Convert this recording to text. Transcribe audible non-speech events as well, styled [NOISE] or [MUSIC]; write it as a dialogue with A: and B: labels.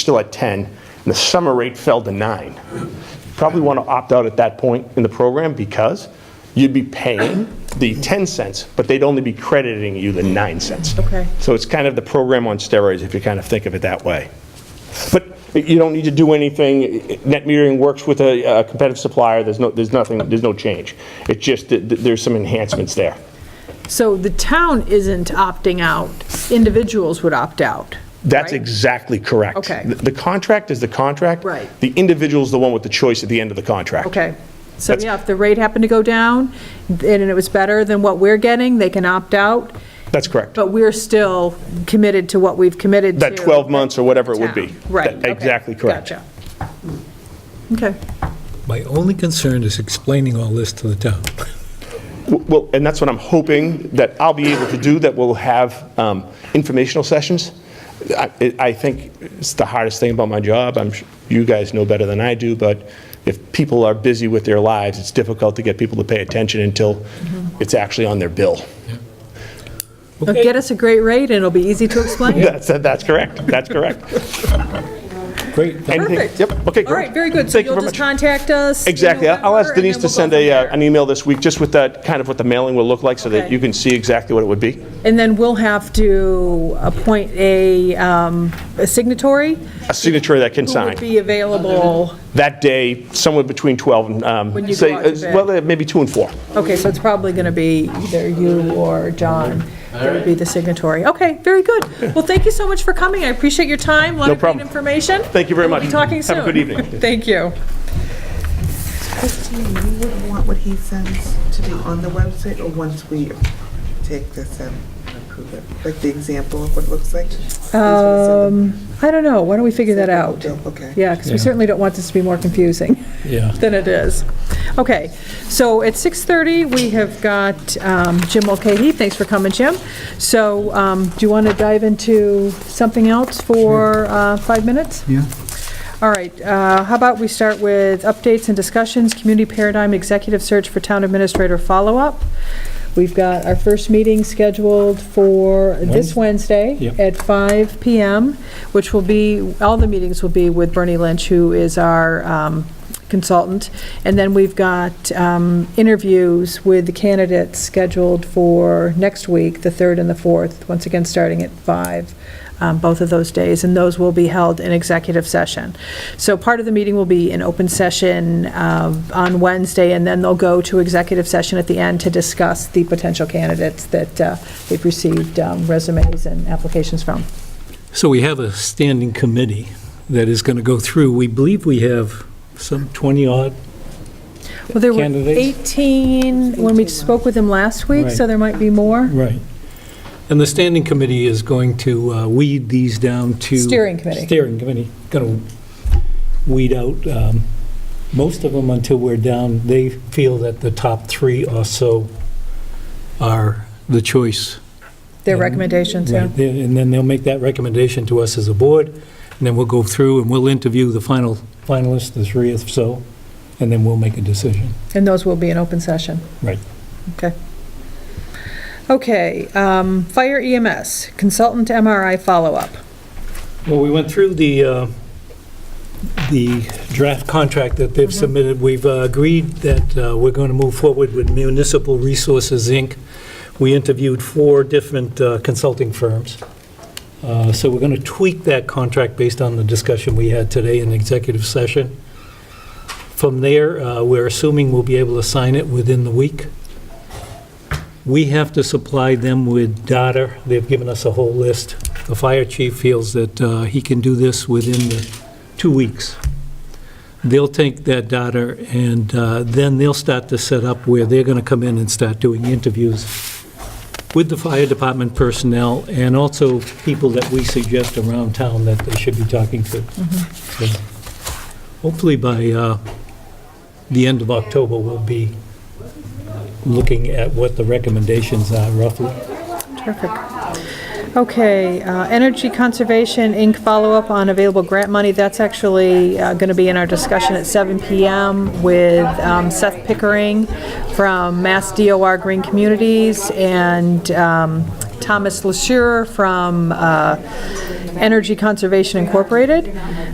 A: still at 10, and the summer rate fell to nine. Probably want to opt out at that point in the program because you'd be paying the 10 cents, but they'd only be crediting you the nine cents.
B: Okay.
A: So it's kind of the program on steroids, if you kind of think of it that way. But you don't need to do anything, net metering works with a a competitive supplier, there's no, there's nothing, there's no change. It's just that that there's some enhancements there.
B: So the town isn't opting out, individuals would opt out.
A: That's
B: right?
A: exactly correct.
B: Okay.
A: The- The contract is the contract.
B: Right.
A: The individual's the one with the choice at the end of the contract.
B: Okay, so
A: That's-
B: yeah, if the rate happened to go down and it was better than what we're getting, they can opt out,
A: That's correct.
B: but we're still committed to what we've committed Oh, to.
A: That 12 months or whatever it would be.
B: Town. Right.
A: That-
B: okay,
A: Exactly correct.
B: Gotcha. Mm. Okay,
C: My only concern is explaining all this to the town.
A: W- Well, and that's what I'm hoping that I'll be able to do, that we'll have um, informational sessions. I I- I think it's the hardest thing about my job. I'm, su- you guys know better than I do, but if people are busy with their lives, it's difficult to get people to pay attention until
B: Mm-hmm.
A: it's actually on their bill.
B: Now, get us a great rate and it'll be easy to
A: [LAUGHS]
B: explain.
A: That's, that's correct. That's
B: [LAUGHS]
A: correct.
C: Great.
A: Anything-
B: Perfect.
A: Yep, okay, great.
B: All right, very good. So
A: Thank you
B: you'll
A: very
B: just
A: much.
B: contact us? in
A: Exactly. I'll
B: November,
A: ask
B: and then
A: Denise
B: we'll
A: to
B: go
A: send
B: from
A: a, uh,
B: there.
A: an email this week, just with that, kind of what the mailing will look like, so that
B: Okay.
A: you can see exactly what it would be.
B: And then we'll have to appoint a um, a signatory
A: A signature that can
B: who
A: sign.
B: would be available.
A: That day, somewhere between 12 and,
B: When
A: um,
B: you
A: say,
B: go out to
A: uh,
B: bid.
A: well, uh, maybe 2 and 4.
B: Okay, so it's probably going to be either you or John that would be the signatory. Okay, very good. Well, thank you so much for coming. I appreciate your time.
A: No
B: A lot of
A: problem.
B: great information.
A: Thank you very
B: We'll be
A: much.
B: talking soon.
A: Have a good evening.
B: [LAUGHS] Thank you.
D: Christine, you would want what he sends to be on the website, or once we take this and approve it? Like the example of what it looks like? Um.
B: I don't know, why don't we figure that out?
D: Okay.
B: Yeah, because we
C: Yeah.
B: certainly don't want this to be more confusing
C: Yeah.
B: than it is. Okay, so at 6:30, we have got um, Jim Mulcahy. Thanks for coming, Jim. So um, do you want to dive into something else for uh, five minutes?
E: Yeah.
B: All right, uh, how about we start with updates and discussions, community paradigm, executive search for town administrator follow-up. We've got our first meeting scheduled for this Wednesday
C: Yep.
B: at 5 PM, which will be, all the meetings will be with Bernie Lynch, who is our um, consultant. And then we've got um, interviews with the candidates scheduled for next week, the 3rd and the 4th, once again, starting at 5, um, both of those days, and those will be held in executive session. So part of the meeting will be an open session um, on Wednesday, and then they'll go to executive session at the end to discuss the potential candidates that uh, they've received um, resumes and applications from.
C: So we have a standing committee that is going to go through, we believe we have some 20-odd,
B: Well, there were
C: Candidates?
B: 18 when we spoke with them last week, so
C: Right.
B: there might be more.
C: right. And the standing committee is going to uh, weed these down to...
B: Steering committee.
C: Steering committee, going to weed out um, most of them until we're down, they feel that the top three or so are the choice
B: Their
C: And-
B: recommendations, yeah.
C: Right, then- and then they'll make that recommendation to us as a board, and then we'll go through and we'll interview the final finalists, the three or so, and then we'll make a decision.
B: And those will be in open session.
C: Right.
B: Okay. Okay, um, fire EMS, consultant MRI follow-up.
C: Well, we went through the, uh, the draft contract that they've submitted. We've uh, agreed that uh, we're going to move forward with Municipal Resources, Inc. We interviewed four different uh, consulting firms. Uh, So we're going to tweak that contract based on the discussion we had today in executive session. From there, uh, we're assuming we'll be able to sign it within the week. We have to supply them with data. They've given us a whole list. The fire chief feels that uh, he can do this within the two weeks. They'll take that data, and uh, then they'll start to set up where they're going to come in and start doing interviews with the fire department personnel and also people that we suggest around town that they should be talking to. So Hopefully by uh, the end of October, we'll be looking at what the recommendations are roughly.
B: Perfect. Okay, uh, Energy Conservation Inc. follow-up on available grant money. That's actually going to be in our discussion at 7 PM with um, Seth Pickering from Mass DOR Green Communities and um, Thomas LaSure from uh, Energy Conservation Incorporated